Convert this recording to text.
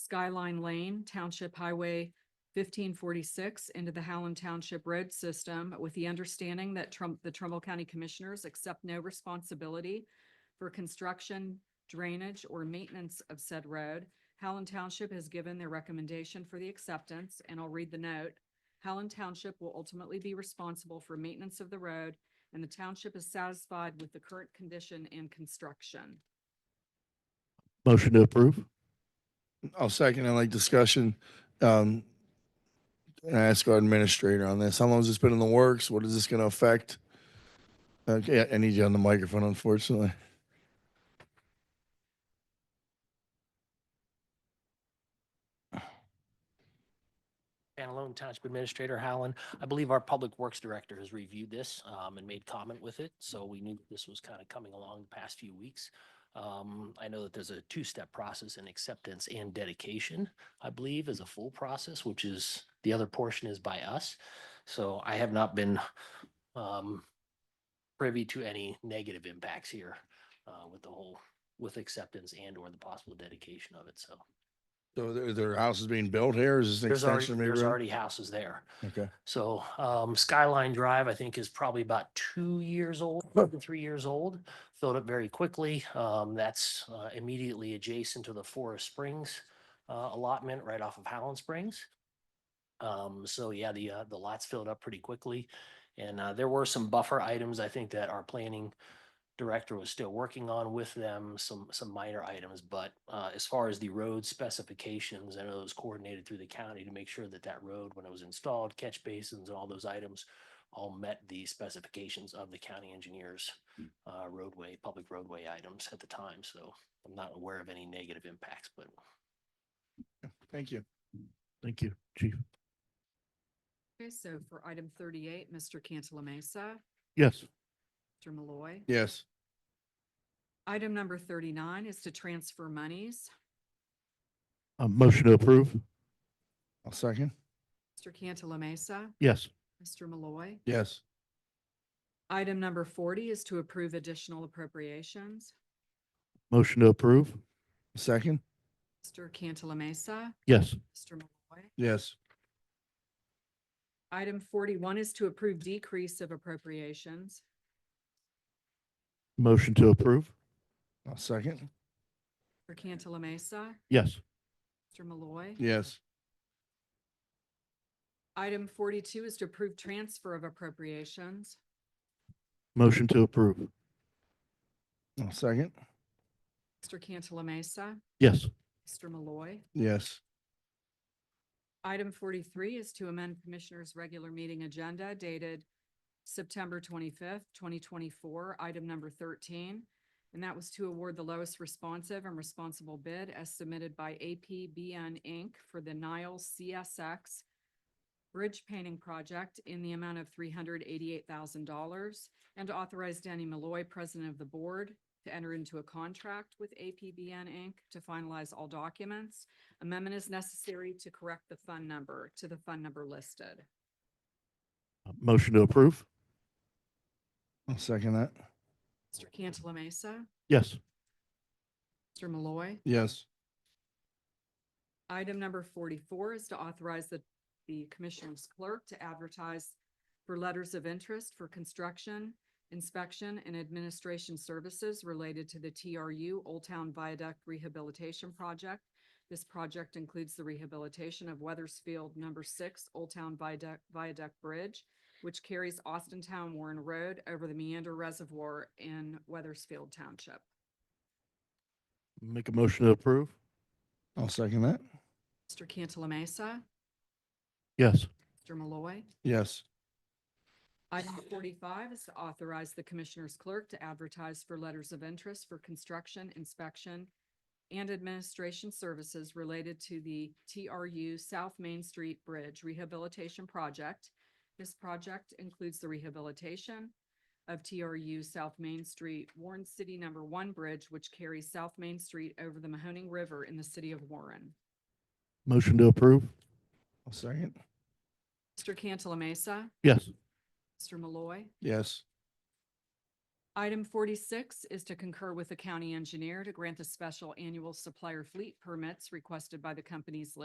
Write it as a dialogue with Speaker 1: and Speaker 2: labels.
Speaker 1: Skyline Lane, Township Highway fifteen forty-six into the Howland Township road system with the understanding that Trump, the Trumbull County Commissioners accept no responsibility for construction, drainage, or maintenance of said road. Howland Township has given their recommendation for the acceptance, and I'll read the note. Howland Township will ultimately be responsible for maintenance of the road, and the township is satisfied with the current condition and construction.
Speaker 2: Motion to approve?
Speaker 3: I'll second and like discussion. Um, and I ask our administrator on this, how long has this been in the works? What is this going to affect? Okay, I- I need you on the microphone, unfortunately.
Speaker 4: Antelope Township Administrator Howland. I believe our Public Works Director has reviewed this um, and made comment with it, so we knew that this was kind of coming along the past few weeks. Um, I know that there's a two-step process in acceptance and dedication, I believe, is a full process, which is, the other portion is by us. So I have not been um, privy to any negative impacts here uh, with the whole, with acceptance and/or the possible dedication of it, so.
Speaker 3: So there, there are houses being built here? Is this an
Speaker 4: There's already,
Speaker 3: extension? of
Speaker 4: there's
Speaker 3: Mayberry?
Speaker 4: already houses there.
Speaker 3: Okay.
Speaker 4: So um, Skyline Drive, I think, is probably about two years old, three years old, filled up very quickly. Um, That's uh, immediately adjacent to the Forest Springs uh, allotment right off of Howland Springs. Um, So yeah, the, uh, the lots filled up pretty quickly. And uh, there were some buffer items, I think, that our planning director was still working on with them, some, some minor items. But uh, as far as the road specifications, I know it was coordinated through the county to make sure that that road, when it was installed, catch basins and all those items all met the specifications of the county engineers uh, roadway, public roadway items at the time. So I'm not aware of any negative impacts, but
Speaker 3: Thank you.
Speaker 2: Thank you, Chief.
Speaker 1: Okay, so for item thirty-eight, Mr. Cantala Mesa,
Speaker 2: Yes.
Speaker 1: Mr. Malloy.
Speaker 3: Yes.
Speaker 1: Item number thirty-nine is to transfer monies.
Speaker 2: A Uh, motion to approve?
Speaker 3: I'll second.
Speaker 1: Mr. Cantala Mesa,
Speaker 2: Yes.
Speaker 1: Mr. Malloy.
Speaker 3: Yes.
Speaker 1: Item number forty is to approve additional appropriations.
Speaker 2: Motion to approve?
Speaker 3: Second?
Speaker 1: Mr. Cantala Mesa,
Speaker 2: Yes.
Speaker 1: Mr. Malloy.
Speaker 3: Yes.
Speaker 1: Item forty-one is to approve decrease of appropriations.
Speaker 2: Motion to approve?
Speaker 3: I'll second.
Speaker 1: Mr. Cantala Mesa,
Speaker 2: Yes.
Speaker 1: Mr. Malloy.
Speaker 3: Yes.
Speaker 1: Item forty-two is to approve transfer of appropriations.
Speaker 2: Motion to approve?
Speaker 3: I'll second.
Speaker 1: Mr. Cantala Mesa,
Speaker 2: Yes.
Speaker 1: Mr. Malloy.
Speaker 3: Yes.
Speaker 1: Item forty-three is to amend Commissioners' regular meeting agenda dated September twenty-fifth, twenty twenty-four, item number thirteen. And that was to award the lowest responsive and responsible bid as submitted by APBN Inc. for the Nile CSX Bridge Painting Project in the amount of three hundred eighty-eight thousand dollars and to authorize Danny Malloy, President of the Board, to enter into a contract with APBN Inc. to finalize all documents Amendment is necessary to correct the fund number to the fund number listed.
Speaker 2: A Uh, Motion to approve?
Speaker 3: I'll second that.
Speaker 1: Mr. Cantala Mesa,
Speaker 2: Yes.
Speaker 1: Mr. Malloy.
Speaker 3: Yes.
Speaker 1: Item number forty-four is to authorize the, the commissioner's clerk to advertise for letters of interest for construction, inspection, and administration services related to the TRU Old Town Viaduct Rehabilitation Project. This project includes the rehabilitation of Weathersfield Number Six Old Town Viaduct, Viaduct Bridge, which carries Austin Town Warren Road over the Meander Reservoir in Weathersfield Township.
Speaker 2: Make a motion to approve?
Speaker 3: I'll second that.
Speaker 1: Mr. Cantala Mesa,
Speaker 2: Yes.
Speaker 1: Mr. Malloy.
Speaker 3: Yes.
Speaker 1: Item forty-five is to authorize the Commissioner's clerk to advertise for letters of interest for construction, inspection, and administration services related to the TRU South Main Street Bridge Rehabilitation Project. This project includes the rehabilitation of TRU South Main Street Warren City Number One Bridge, which carries South Main Street over the Mahoning River in the city of Warren.
Speaker 2: Motion to approve?
Speaker 3: I'll second.
Speaker 1: Mr. Cantala Mesa,
Speaker 2: Yes.
Speaker 1: Mr. Malloy.
Speaker 3: Yes.
Speaker 1: Item forty-six is to concur with the county engineer to grant the special annual supplier fleet permits requested by the companies listed